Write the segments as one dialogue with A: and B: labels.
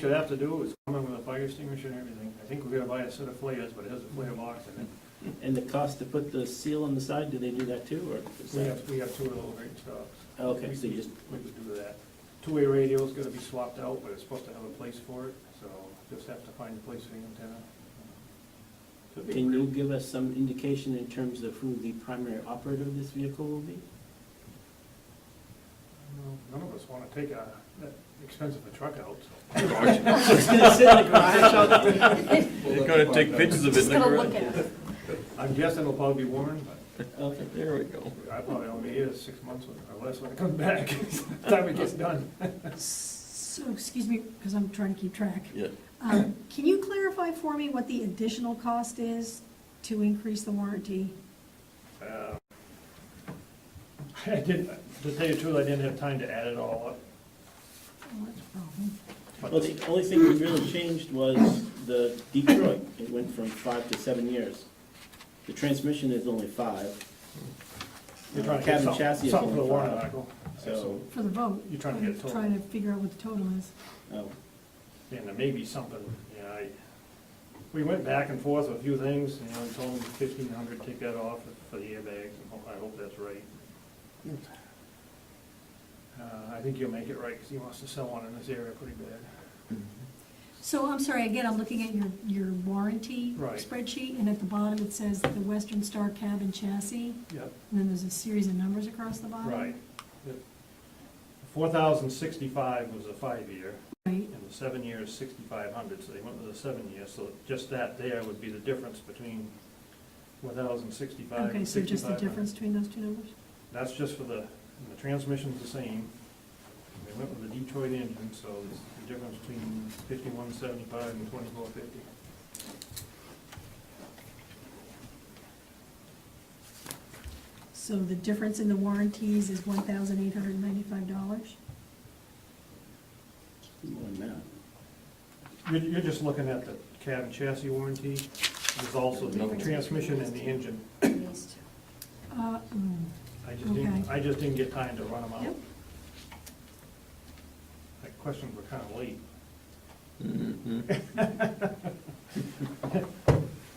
A: should have to do is come in with a fire extinguisher and everything. I think we're gonna buy a set of flares, but it has a flare box in it.
B: And the cost to put the seal on the side, do they do that too, or? is
A: We
B: that-
A: have, we have two of those great stops.
B: Okay, so you just,
A: We could do that. Two-way radio's gonna be swapped out, but it's supposed to have a place for it, so just have to find a place for the antenna.
B: can you give us some indication in terms of who the primary operator of this vehicle will be?
A: None of us wanna take a, that expensive a truck out, so.
B: It's gonna sit in the garage all day.
C: They're gonna take pictures of it.
D: Just gonna look at it.
A: I'm guessing it'll probably be worn, but
B: Okay,
C: There we go.
A: I probably only here six months or less when it comes back, by the time it gets done.
D: So, excuse me, because I'm trying to keep track.
C: Yeah.
D: Um, Can you clarify for me what the additional cost is to increase the warranty?
A: Uh, I didn't, to tell you the truth, I didn't have time to add it all up.
D: Oh, that's a problem.
A: but-
B: Well, the only thing we really changed was the Detroit. It went from five to seven years. The transmission is only five,
A: You're trying to
B: Cabin
A: get something,
B: chassis is
A: something for the
B: going
A: warrant
B: fine.
A: article.
B: so,
D: For the vote.
A: You're trying to get a total.
D: I'm Trying to figure out what the total is.
B: oh,
A: And there may be something, you know, I, we went back and forth with a few things, you know, and told them fifteen hundred, take that off for the airbags, and ho- I hope that's right.
B: Mm.
A: Uh, I think you'll make it right, because he wants to sell one in this area pretty bad.
D: So I'm sorry, again, I'm looking at your, your warranty
A: Right.
D: spreadsheet, and at the bottom it says the Western Star cab and chassis,
A: Yep.
D: and then there's a series of numbers across the bottom.
A: Right. Four thousand sixty-five was a five-year,
D: Right,
A: and the seven year is sixty-five hundred, so they went with a seven year, so just that there would be the difference between one thousand sixty-five
D: okay,
A: and
D: so just the
A: 6,500.
D: difference between those two numbers?
A: That's just for the, and the transmission's the same. They went with the Detroit engine, so it's the difference between fifty-one seventy-five and twenty-four fifty.
D: So the difference in the warranties is one thousand eight hundred and ninety-five dollars?
B: more than that.
A: You're, you're just looking at the cab and chassis warranty. There's also the transmission and the engine.
D: Uh, mm,
A: I just didn't,
D: Okay.
A: I just didn't get time to run them out.
D: Yep.
A: That question were kind of late.
C: Mm-hmm.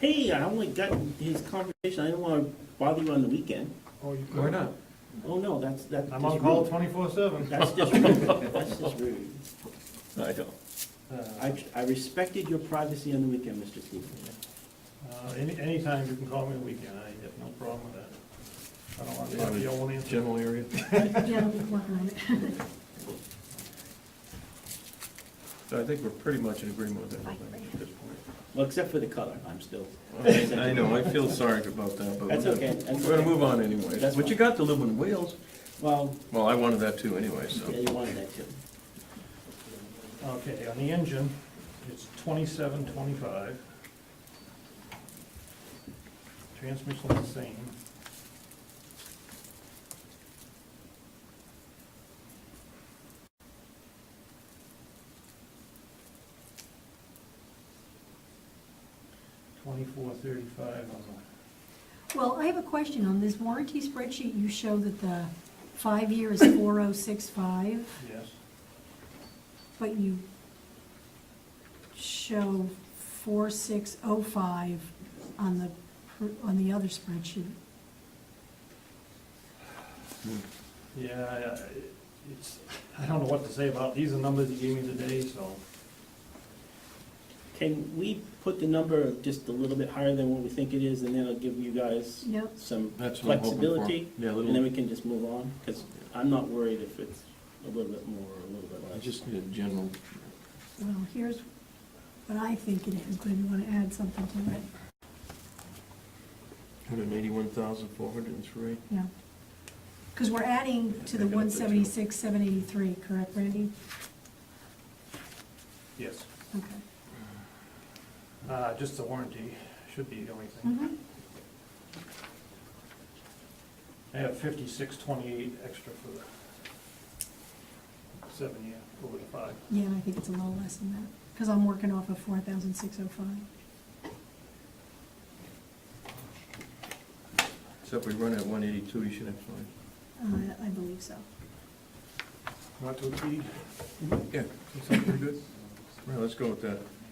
B: Hey, I only got his conversation, I didn't wanna bother you on the weekend.
A: Oh, you-
C: Why not?
B: Oh, no, that's, that's.
A: I'm
B: just
A: on call
B: rude.
A: twenty-four seven.
B: That's just rude, that's just rude.
C: I don't.
B: I, I respected your privacy on the weekend, Mr. Cooper.
A: Uh, Any, anytime you can call me on the weekend, I have no problem with that. I don't want to talk to you, I won't answer.
C: General area.
D: Yeah, I'll be working on it.
C: So I think we're pretty much in agreement with everything at this
B: Well, except for the color, I'm still.
C: point. I know, I feel sorry about that, but.
B: That's
C: we're
B: okay,
C: gonna-
B: that's
C: We're gonna
B: okay.
C: move on anyway.
B: That's
C: But you got to live on wheels.
B: Well,
C: Well, I wanted that too anyway, so.
B: yeah, you wanted that too.
A: Okay, on the engine, it's twenty-seven twenty-five. Transmission's the same. Twenty-four thirty-five on the,
D: Well, I have a question on this warranty spreadsheet, you show that the five-year is four oh six five,
A: yes,
D: but you show four six oh five on the, pr- on the other spreadsheet.
A: yeah, I- I- it's, I don't know what to say about, these are numbers you gave me today, so.
B: Can we put the number just a little bit higher than what we think it is, and then I'll give you guys
D: Yep,
B: some
C: That's what I'm hoping for.
B: flexibility?
C: Yeah, a
B: And then we
C: little,
B: can just move on, because I'm not worried if it's a little bit more or a little bit
C: I
B: less.
C: just need a general.
D: well, here's what I think it is, but if you wanna add something to it,
C: Hundred eighty-one thousand, four hundred and three.
D: yeah. Because we're adding to the
C: I got it, too.
D: one seventy-six, seven eighty-three, correct, Randy?
A: Yes.
D: Okay.
A: Uh, just the warranty should be the only thing.
D: Mhm.
A: I have fifty-six twenty-eight extra for the seven year, over the five.
D: Yeah, I think it's a little less than that, because I'm working off of four thousand six oh five.
C: Except we run at one eighty-two, you should have fine.
D: Uh, I believe so.
A: Not to exceed.
C: Yeah. Sounds pretty good. Well, let's go with that.